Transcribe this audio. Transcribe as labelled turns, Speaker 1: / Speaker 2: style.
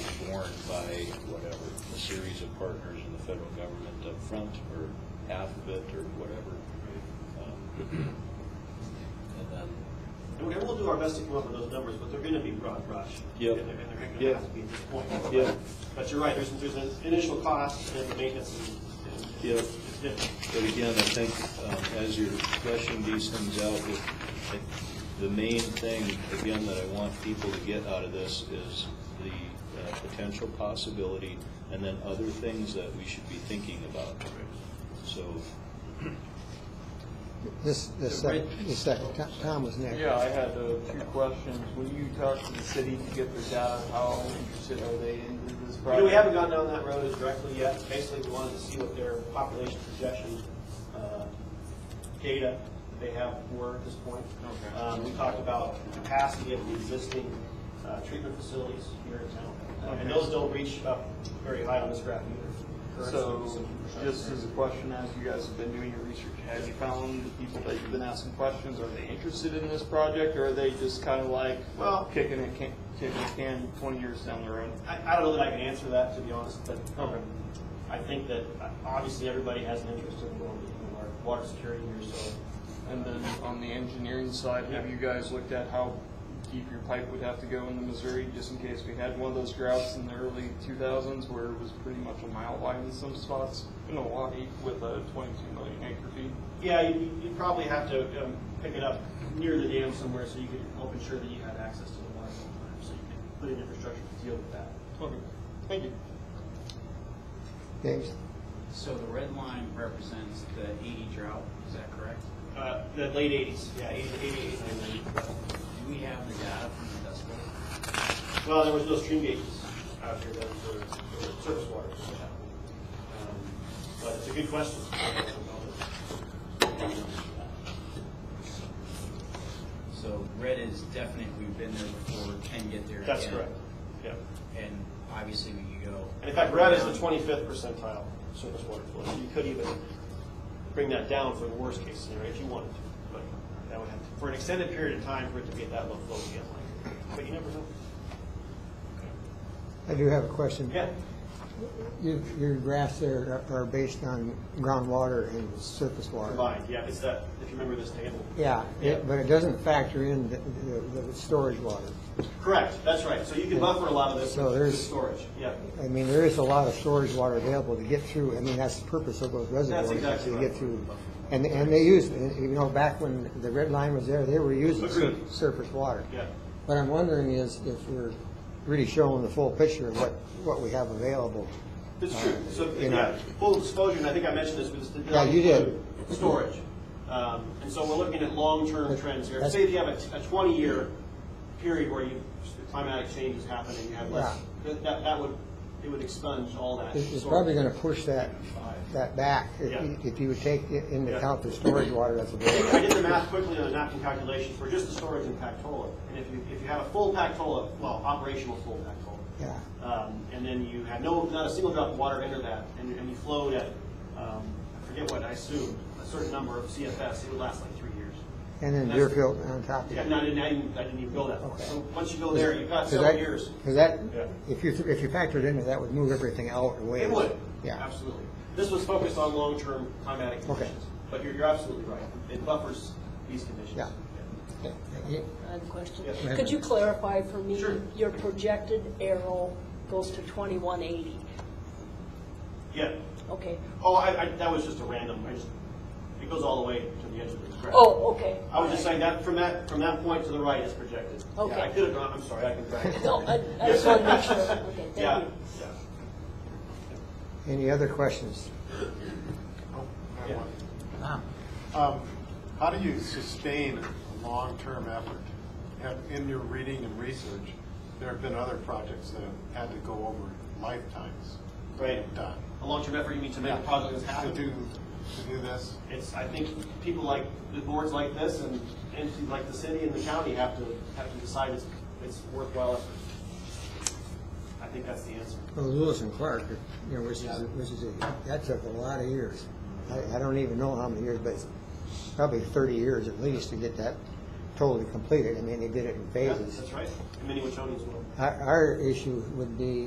Speaker 1: governed by whatever, a series of partners in the federal government up front, or half of it, or whatever. Um, And then,
Speaker 2: And we- and we'll do our best to come up with those numbers, but they're gonna be broad brush.
Speaker 1: Yep.
Speaker 2: And they're and they're gonna
Speaker 1: Yep.
Speaker 2: have to be at this point.
Speaker 1: Yep.
Speaker 2: But you're right, there's, there's an initial cost and then maintenance and. and
Speaker 1: Yep.
Speaker 2: It's different.
Speaker 1: but again, I think um, as you're fleshing these things out, it- it- the main thing, again, that I want people to get out of this is the uh, potential possibility, and then other things that we should be thinking about. So,
Speaker 3: This, this second, this second, Tom- Tom was next.
Speaker 4: Yeah, I had uh, two questions. Will you talk to the city to get their data? How interested are they in this
Speaker 2: You
Speaker 4: project?
Speaker 2: know, we haven't gone down that road as directly yet. Basically, we wanted to see what their population projection uh, data that they have were at this point.
Speaker 4: Okay.
Speaker 2: Um, We talked about capacity of the existing uh, treatment facilities here in town. Uh, And
Speaker 4: Okay.
Speaker 2: those don't reach up very high on this graph either.
Speaker 4: So, just as a question, as you guys have been doing your research, have you found the people that you've been asking questions, are they interested in this project, or are they just kind of like, well,
Speaker 2: Well-
Speaker 4: kicking a can, kicking a can twenty years down the road?
Speaker 2: I, I don't know that I can answer that, to be honest, but um,
Speaker 4: Okay.
Speaker 2: I think that uh, obviously everybody has an interest in what we do, our water security here, so.
Speaker 4: And then on the engineering side, have you guys looked at how deep your pipe would have to go in the Missouri, just in case we had one of those droughts in the early two thousands where it was pretty much a mile wide in some spots in Milwaukee with a twenty-two million acre feet?
Speaker 2: Yeah, you, you'd probably have to um, pick it up near the dam somewhere so you could help ensure that you had access to the water all the time, so you could put in infrastructure to deal with that.
Speaker 4: Okay, thank you.
Speaker 3: James,
Speaker 5: So the red line represents the 80 drought, is that correct?
Speaker 2: Uh, the late eighties, yeah, eighty, eighty-eight, and then,
Speaker 5: Do we have the data from the Dust Bowl?
Speaker 2: well, there was no stream gauges out here then for, for surface water. so, um, But it's a good question.
Speaker 5: So red is definite, we've been there before, can get there again.
Speaker 2: That's correct, yeah.
Speaker 5: And obviously we can go.
Speaker 2: And in fact, red is the twenty-fifth percentile surface water flow, so you could even bring that down for the worst-case scenario if you wanted to. But that would have, to- for an extended period of time for it to be at that low flow again, like, but you never know.
Speaker 3: I do have a question.
Speaker 2: Yeah,
Speaker 3: Your, your graphs there are are based on groundwater and surface water.
Speaker 2: combined, yeah, it's that, if you remember this table.
Speaker 3: Yeah,
Speaker 2: Yeah.
Speaker 3: it- but it doesn't factor in the, the, the storage water.
Speaker 2: Correct, that's right, so you can buffer a lot of this
Speaker 3: So
Speaker 2: with
Speaker 3: there's-
Speaker 2: storage, yeah.
Speaker 3: I mean, there is a lot of storage water available to get through, I mean, that's the purpose of those reservoirs. is
Speaker 2: exactly
Speaker 3: To
Speaker 2: right.
Speaker 3: get through, and, and they use, you know, back when the red line was there, they were using sur-
Speaker 2: Agreed.
Speaker 3: surface water.
Speaker 2: Yeah.
Speaker 3: What I'm wondering is if we're really showing the full picture of what, what we have available.
Speaker 2: It's true, so,
Speaker 3: You know.
Speaker 2: yeah, full disclosure, and I think I mentioned this, was the.
Speaker 3: Yeah, you did.
Speaker 2: Storage. Um, and so we're looking at long-term trends here. Say if you have a, a twenty-year period where you, climatic change is happening, you have less, that, that that would, it would expunge all that.
Speaker 3: It's it's
Speaker 2: storage.
Speaker 3: probably gonna push that, that back, if you-
Speaker 2: Yeah.
Speaker 3: if you would take i- into
Speaker 2: Yeah.
Speaker 3: account the storage water that's
Speaker 2: I
Speaker 3: available.
Speaker 2: did the math quickly on the napkin calculations for just the storage in Pactola. And if you, if you have a full Pactola, well, operational full Pactola,
Speaker 3: Yeah,
Speaker 2: um, and then you had no, not a single drop of water enter that, and, and you flowed at, um, I forget what, I assume, a certain number of CFS, it would last like three years.
Speaker 3: and then
Speaker 2: That's-
Speaker 3: Deerfield on top of
Speaker 2: Yeah,
Speaker 3: it.
Speaker 2: no, I didn't, I didn't, I didn't even go that far.
Speaker 3: Okay.
Speaker 2: So once you go there, you've got
Speaker 3: Because
Speaker 2: several
Speaker 3: that-
Speaker 2: years.
Speaker 3: Because that,
Speaker 2: Yeah.
Speaker 3: if you, if you factored into that, would move everything out away.
Speaker 2: It would,
Speaker 3: Yeah,
Speaker 2: absolutely. This was focused on long-term climatic
Speaker 3: Okay.
Speaker 2: conditions, but you're, you're absolutely right. It buffers these conditions.
Speaker 3: Yeah. Yeah.
Speaker 6: I have a question.
Speaker 2: Yeah.
Speaker 6: Could you clarify for me?
Speaker 2: Sure.
Speaker 6: Your projected arrow goes to 2180.
Speaker 2: Yeah.
Speaker 6: Okay.
Speaker 2: Oh, I, I, that was just a random, I just, it goes all the way to the edge of the graph.
Speaker 6: Oh, okay.
Speaker 2: I was just saying that, from that, from that point to the right is projected. Yeah,
Speaker 6: Okay.
Speaker 2: I could have gone, I'm sorry, I can back.
Speaker 6: No, I I just want to make sure. Okay,
Speaker 2: Yeah,
Speaker 6: thank you.
Speaker 2: yeah.
Speaker 3: Any other questions?
Speaker 2: Yeah.
Speaker 7: Um, How do you sustain a long-term effort? Have, in your reading and research, there have been other projects that have had to go over lifetimes.
Speaker 2: Right.
Speaker 7: Done.
Speaker 2: A long-term effort, you mean to make a project happen?
Speaker 7: To do, to do this,
Speaker 2: It's, I think people like, the boards like this and entities like the city and the county have to, have to decide it's, it's worthwhile effort. I think that's the answer.
Speaker 3: Well, Lewis and Clark, you know, which is, which is, a- that took a lot of years. I, I don't even know how many years, but it's probably thirty years at least to get that totally completed. I mean, they did it in
Speaker 2: Yeah,
Speaker 3: phases.
Speaker 2: That's right. And many Wachonians will.
Speaker 3: Our, our issue would be